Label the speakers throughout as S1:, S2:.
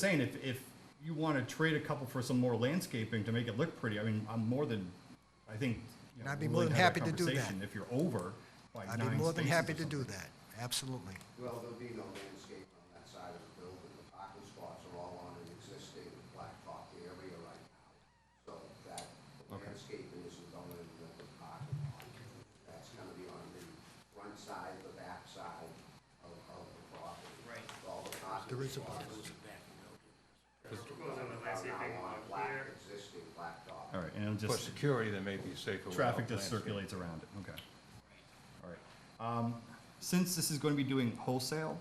S1: saying if, if you want to trade a couple for some more landscaping to make it look pretty, I mean, I'm more than, I think. you know,
S2: I'd be
S1: we'll
S2: more
S1: really
S2: than
S1: have
S2: happy to do that.
S1: conversation If you're over by nine
S2: I'd be more than
S1: spaces or
S2: happy to do
S1: something.
S2: that, absolutely.
S3: Well, there'll be no landscape on that side of the building. The parking spots are all on an existing blacktop area right now. So that landscaping isn't going into the parking lot. That's gonna be on the front side, the back side of, of the property. Right. All the parking
S2: There is a
S3: spots
S4: Goes on the
S3: are
S4: landscaping
S3: now on
S4: over
S3: black,
S4: here.
S3: existing blacktop.
S1: All right, and it'll
S5: For
S1: just,
S5: security, they may be safer.
S1: traffic
S5: without
S1: just
S5: landscaping.
S1: circulates around it, okay. All right. Um, since this is going to be doing wholesale,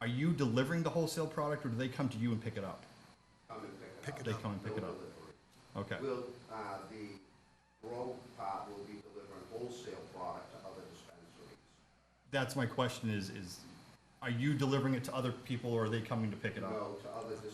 S1: are you delivering the wholesale product or do they come to you and pick it up?
S3: Come and pick it up.
S1: They come and pick it
S3: No
S1: up,
S3: delivery.
S1: okay.
S3: Will, uh, the grow part will be delivering wholesale product to other dispensaries.
S1: That's my question is, is, are you delivering it to other people or are they coming to pick it up?
S3: No, to other dispensaries.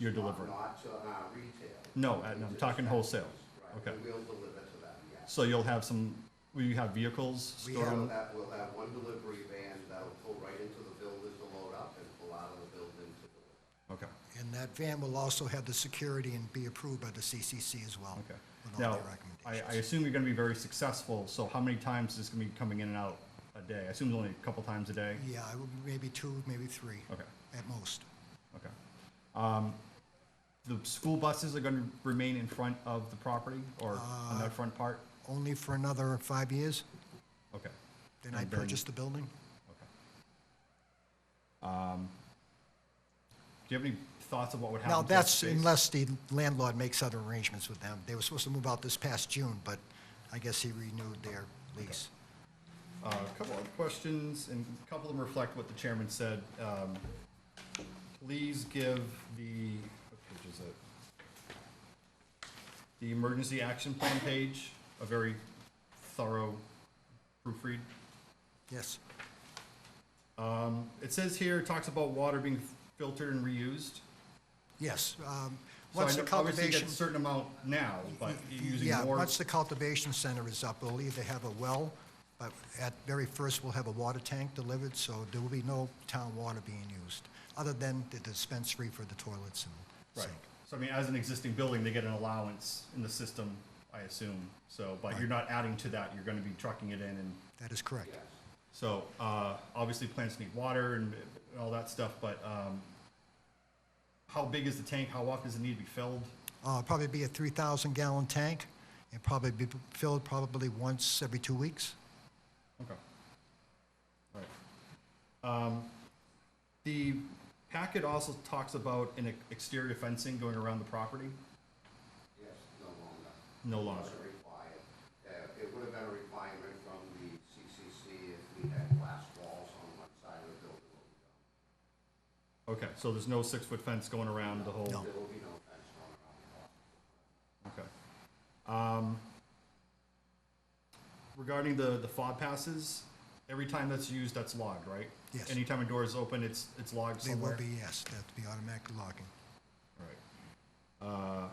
S1: You're
S3: not-
S1: delivering.
S3: Not to, uh, retail.
S1: No, I- no, I'm talking wholesale.
S3: Right,
S1: Okay.
S3: and we'll deliver to them, yes.
S1: So you'll have some, will you have vehicles
S2: We
S1: stored?
S3: We'll
S1: on-
S3: have, we'll have one delivery van that'll pull right into the building to load up and pull out of the building to deliver.
S1: Okay,
S2: And that van will also have the security and be approved by the CCC as well.
S1: okay.
S2: With all
S1: Now,
S2: their
S1: I, I
S2: recommendations.
S1: assume you're gonna be very successful, so how many times is this gonna be coming in and out a day? I assume it's only a couple times a day?
S2: Yeah, I would- maybe two, maybe three.
S1: Okay.
S2: At most.
S1: Okay. Um, the school buses are gonna remain in front of the property or on
S2: Uh,
S1: that front part?
S2: Only for another five years,
S1: Okay,
S2: then I
S1: And then-
S2: purchase the building.
S1: okay. Um, do you have any thoughts of what would happen?
S2: Now,
S1: to that
S2: that's
S1: space?
S2: unless the landlord makes other arrangements with them. They were supposed to move out this past June, but I guess he renewed their lease.
S1: Uh, A couple of questions, and a couple of them reflect what the chairman said. Um, Please give the, what page is it? The emergency action plan page, a very thorough proofread.
S2: Yes,
S1: Um, It says here, it talks about water being filtered and reused.
S2: yes. um,
S1: So I
S2: Once the
S1: know- Obviously, you get
S2: cultivation.
S1: a certain amount now, but you're using
S2: Yeah,
S1: more.
S2: once the cultivation center is up, we'll either have a well, but at very first, we'll have a water tank delivered, so there will be no town water being used, other than the dispensary for the toilets and
S1: Right.
S2: sink.
S1: So I mean, as an existing building, they get an allowance in the system, I assume. So, but you're not adding to that, you're gonna be trucking it in and,
S2: That is correct.
S3: Yes.
S1: so, uh, obviously plants need water and and all that stuff, but, um, how big is the tank? How often does it need to be filled?
S2: Uh, Probably be a 3,000 gallon tank, and probably be filled probably once every two weeks.
S1: Okay. All right. Um, the packet also talks about an ex- exterior fencing going around the property,
S3: Yes, no longer.
S1: no longer.
S3: Wasn't required. Uh, it would have been a requirement from the CCC if we had glass walls on one side of the building.
S1: Okay, so there's no six-foot fence going around the whole?
S2: No.
S3: There will be no fence going around the wall.
S1: Okay. Um, Regarding the, the fob passes, every time that's used, that's logged, right?
S2: Yes.
S1: Anytime a door is open, it's, it's logged
S2: They will
S1: somewhere?
S2: be, yes, that'll be automatic locking.
S1: All right. Uh,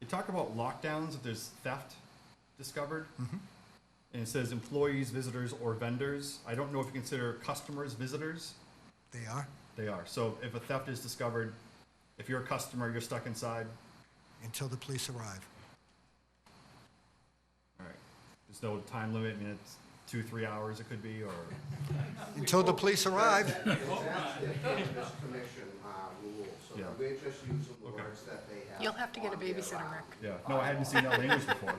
S1: You talk about lockdowns, if there's theft discovered? And it says employees, visitors, or vendors. I don't know if you consider customers visitors.
S2: They are,
S1: They are. So if a theft is discovered, if you're a customer, you're stuck inside?
S2: until the police arrive.
S1: All right. There's no time limit, I mean, it's two, three hours it could be, or,
S2: Until the police arrive,
S3: That's the cannabis commission uh, rule, so
S1: Yeah.
S3: we're just using the
S1: Okay.
S3: words that they have.
S6: You'll have to get a
S3: on their
S6: babysitter,
S3: bylaw.
S6: Rick.
S1: yeah, no, I hadn't seen that language before.
S3: No.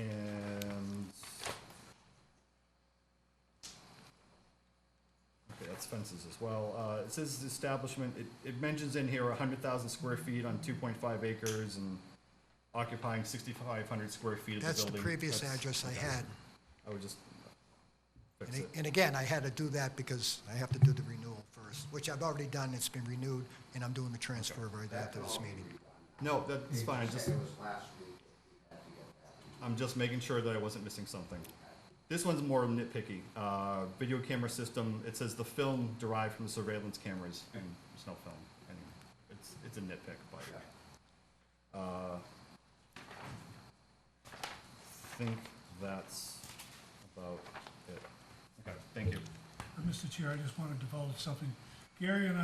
S1: And. Okay, that's fences as well. Uh, it says establishment, it, it mentions in here hundred thousand square feet on two point five acres and occupying sixty-five hundred square feet of the
S2: that's
S1: building.
S2: the previous
S1: That's-
S2: address I
S1: okay.
S2: had.
S1: I would just fix
S2: And
S1: it.
S2: a- And again, I had to do that because I have to do the renewal first, which I've already done, it's been renewed, and I'm doing the transfer right after this meeting.
S1: No, that's fine,
S3: They
S1: just.
S3: said It was last week, we had to get that.
S1: I'm just making sure that I wasn't missing something. This one's more nitpicky. Uh, video camera system, it says the film derived from the surveillance cameras, and there's no film. Anyway, it's, it's a nitpick, but, uh, I think that's about it. Okay, thank you.
S7: Mr. Chair, I just want to divulge something. Gary and